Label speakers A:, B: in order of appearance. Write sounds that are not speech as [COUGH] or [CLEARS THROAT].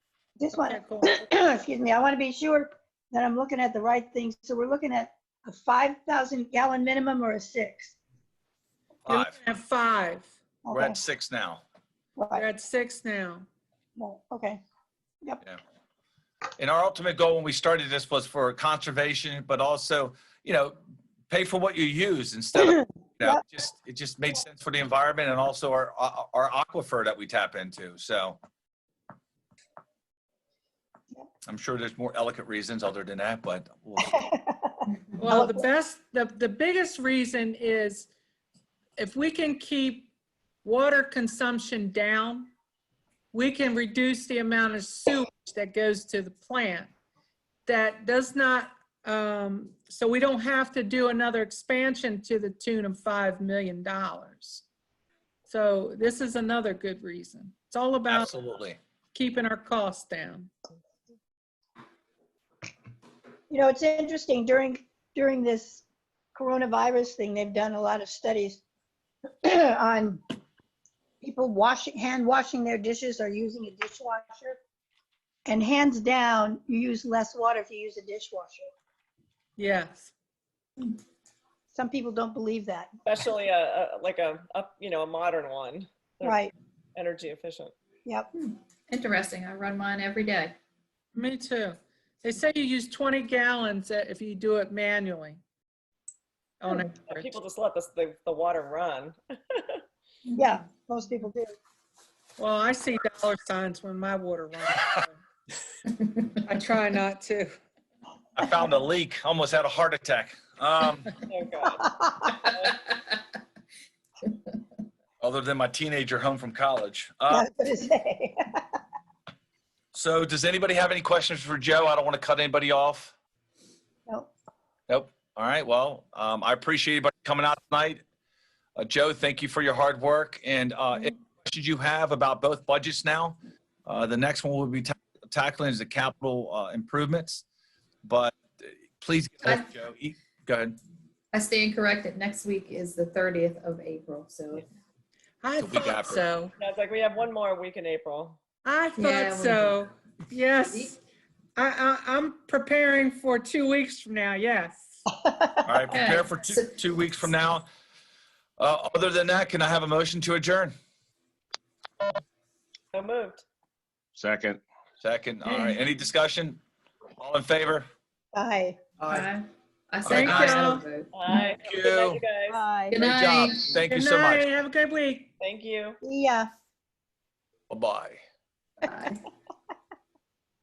A: Just want,
B: Okay, cool.
A: [COUGHS] excuse me, I want to be sure that I'm looking at the right things. So we're looking at a 5,000 gallon minimum or a six?
B: You're
C: Five.
B: looking at five.
C: We're
A: Okay,
C: at six now.
B: You're
A: right,
B: at six now.
A: right, okay.
C: And our ultimate goal when we started this was for conservation, but also, you know, pay for what you use
A: [CLEARS THROAT]
C: instead of, you know,
A: Yep.
C: just, it just made sense for the environment and also our, our aquifer that we tap into, so. I'm sure there's more elegant reasons other than that, but we'll-
A: [LAUGHS]
B: Well, the best, the, the biggest reason is if we can keep water consumption down, we can reduce the amount of sewage that goes to the plant. That does not, um, so we don't have to do another expansion to the tune of $5 million. So this is another good reason. It's all about
C: absolutely.
B: keeping our costs down.
A: You know, it's interesting during, during this coronavirus thing, they've done a lot of studies [COUGHS] on people washing, hand washing their dishes or using a dishwasher. And hands down, you use less water if you use a dishwasher.
B: Yes.
A: Some people don't believe that,
D: especially a, a like a up you know a modern one Yeah.
A: right?
D: energy efficient
A: Yep,
E: Interesting. I run mine every day.
B: Me too. They say you use 20 gallons uh, if you do it manually. On
D: Yeah,
B: average.
D: people just let this the, the water run
A: yeah, most people do.
B: Well, I see dollar signs when my water runs. so [LAUGHS] I try not to.
C: I found a leak, almost had a heart attack.
A: [LAUGHS]
C: Um,
D: oh god
C: other than my teenager home from college.
A: [LAUGHS] Yeah, I
C: Uh,
A: was gonna say.
C: so does anybody have any questions for Joe? I don't want to cut anybody off.
A: No,
C: Nope. All right. Well, um, I appreciate everybody coming out tonight. Uh, Joe, thank you for your hard work. And uh,
E: Mm-hmm.
C: any questions you have about both budgets now? Uh, the next one we'll be ta- tackling is the capital uh, improvements. But uh, please, get hold of Joe. E- Go ahead.
E: I stand corrected. Next week is the 30th of April. So
B: I
C: The week
B: thought
C: after.
B: so.
D: And i was like we have one more week in april
B: I
E: Yeah,
B: thought
E: we-
B: so. Yes. I, I, I'm preparing for two weeks from now. Yes.
C: All right. Prepare for
E: So-
C: two, two weeks from now. Uh, other than that, can I have a motion to adjourn?
D: so moved
F: Second.
C: Second. All
E: Mm.
C: right. Any discussion? All in favor?
A: bye,
E: I, I say
C: Thank
E: aye.
B: you.
E: I vote.
D: Bye. Have a good night, you guys
A: bye.
E: Good
C: Great job.
E: night.
C: Thank you
B: Good
C: so much.
B: night. Have a good week.
D: thank you
A: Yeah.
C: Bye-bye.
E: Bye.